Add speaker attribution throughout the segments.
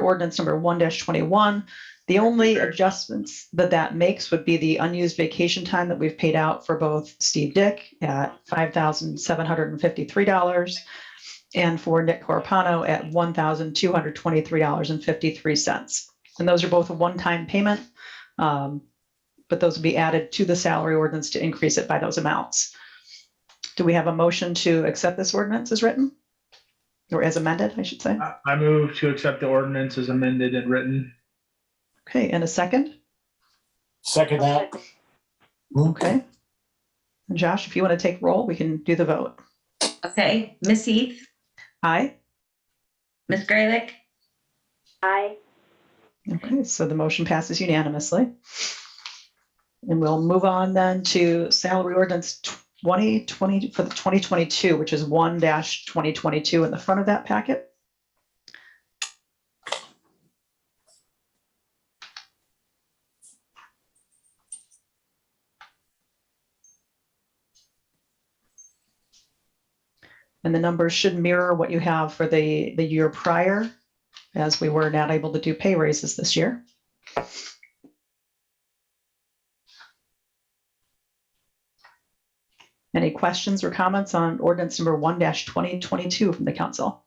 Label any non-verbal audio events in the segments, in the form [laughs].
Speaker 1: ordinance number one twenty-one. The only adjustments that that makes would be the unused vacation time that we've paid out for both Steve Dick at five thousand seven hundred and fifty-three dollars and for Nick Corpano at one thousand two hundred twenty-three dollars and fifty-three cents. And those are both a one-time payment. um, But those would be added to the salary ordinance to increase it by those amounts. Do we have a motion to accept this ordinance as written? Or as amended, I should say?
Speaker 2: I- I move to accept the ordinance as amended and written.
Speaker 1: Okay, and a second?
Speaker 3: Second that.
Speaker 1: Okay. And Josh, if you want to take roll, we can do the vote.
Speaker 4: Okay, Miss Heath,
Speaker 1: Aye.
Speaker 4: Miss Graylick,
Speaker 5: Aye.
Speaker 1: Okay, so the motion passes unanimously. And we'll move on then to salary ordinance 2020 for the 2022, which is 1-2022 in the front of that packet. And the numbers should mirror what you have for the, the year prior as we were not able to do pay raises this year. Any questions or comments on ordinance number one twenty twenty-two from the council?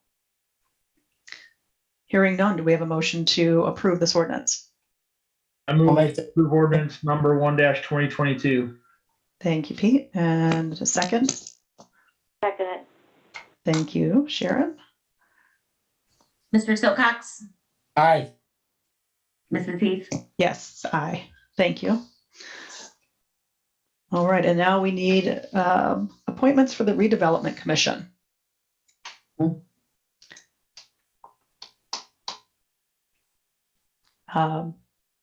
Speaker 1: Hearing none, do we have a motion to approve this ordinance?
Speaker 2: I
Speaker 3: I'll
Speaker 2: move to
Speaker 3: make the-
Speaker 2: approve ordinance number one twenty twenty-two.
Speaker 1: Thank you, Pete. And a second.
Speaker 5: Second it.
Speaker 1: Thank you, Sharon.
Speaker 4: Mr. Silcox,
Speaker 3: Aye,
Speaker 4: Mrs. Heath.
Speaker 1: Yes, aye. Thank you. All right, and now we need um, appointments for the redevelopment commission. Um,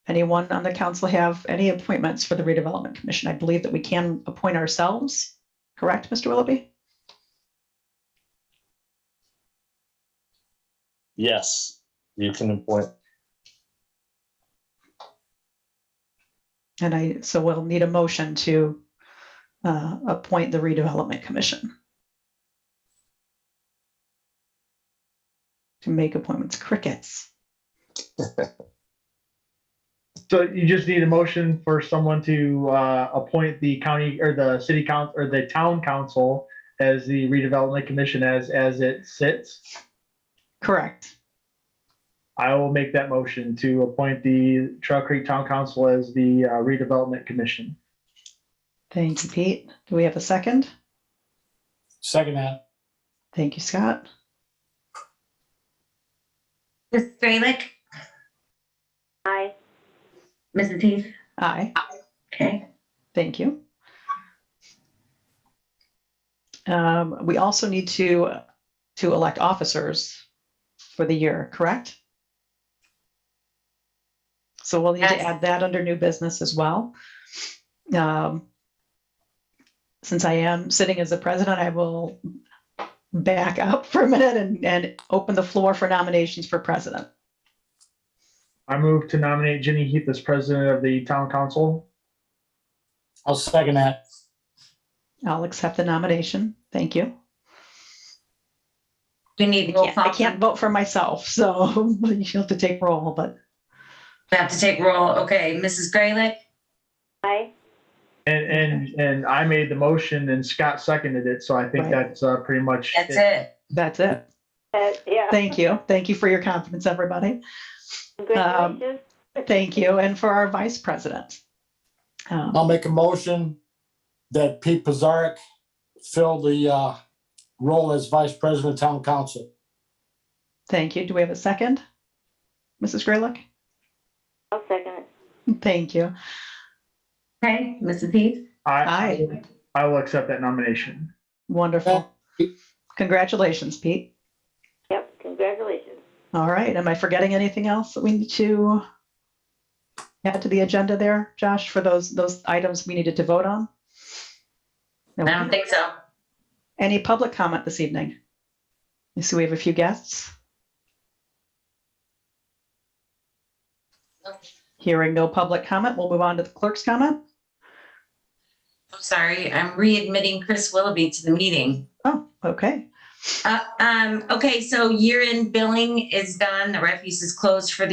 Speaker 1: Anyone on the council have any appointments for the redevelopment commission? I believe that we can appoint ourselves, correct, Mr. Willoughby?
Speaker 6: Yes, you can appoint.
Speaker 1: And I, so we'll need a motion to uh, appoint the redevelopment commission. To make appointments crickets.
Speaker 2: So you just need a motion for someone to uh, appoint the county or the city council or the town council as the redevelopment commission as, as it sits.
Speaker 1: Correct.
Speaker 2: I will make that motion to appoint the Trail Creek Town Council as the uh, redevelopment commission.
Speaker 1: Thank you, Pete. Do we have a second?
Speaker 3: second that.
Speaker 1: Thank you, Scott.
Speaker 4: Miss Graylick,
Speaker 5: Aye.
Speaker 4: Mrs. Heath.
Speaker 1: Aye,
Speaker 4: Okay,
Speaker 1: thank you. Um, we also need to, to elect officers for the year, correct? So we'll need to
Speaker 4: Yes.
Speaker 1: add that under new business as well. Um, Since I am sitting as the president, I will back up for a minute and, and open the floor for nominations for president.
Speaker 2: I move to nominate Jenny Heath as president of the town council.
Speaker 3: I'll second that.
Speaker 1: I'll accept the nomination. Thank you.
Speaker 4: we
Speaker 1: I
Speaker 4: need roll
Speaker 1: can't, I
Speaker 4: call.
Speaker 1: can't vote for myself, so [laughs] you'll have to take roll, but
Speaker 4: We have to take roll. Okay, Mrs. Graylick,
Speaker 5: Aye.
Speaker 2: And, and, and I made the motion and Scott seconded it, so I think
Speaker 1: Right.
Speaker 2: that's uh, pretty much.
Speaker 4: that's it.
Speaker 1: that's it.
Speaker 5: Uh, yeah.
Speaker 1: Thank you. Thank you for your confidence, everybody.
Speaker 5: Congratulations.
Speaker 1: Thank you. And for our vice president. Um,
Speaker 3: I'll make a motion that Pete Pizarnik fill the uh, role as Vice President of Town Council.
Speaker 1: Thank you. Do we have a second? Mrs. Graylock?
Speaker 5: I'll second it.
Speaker 1: Thank you.
Speaker 4: Okay, Mrs. Heath.
Speaker 2: I, I will accept that nomination.
Speaker 1: Wonderful. Congratulations, Pete.
Speaker 5: Yep, congratulations.
Speaker 1: All right. Am I forgetting anything else that we need to add to the agenda there, Josh, for those, those items we needed to vote on?
Speaker 4: I don't think so.
Speaker 1: Any public comment this evening? I see we have a few guests.
Speaker 4: No.
Speaker 1: Hearing no public comment, we'll move on to the clerk's comment.
Speaker 4: I'm sorry. I'm readmitting Chris Willoughby to the meeting.
Speaker 1: Oh, okay.
Speaker 4: Uh, um, okay, so year-end billing is done. The refuse is closed for the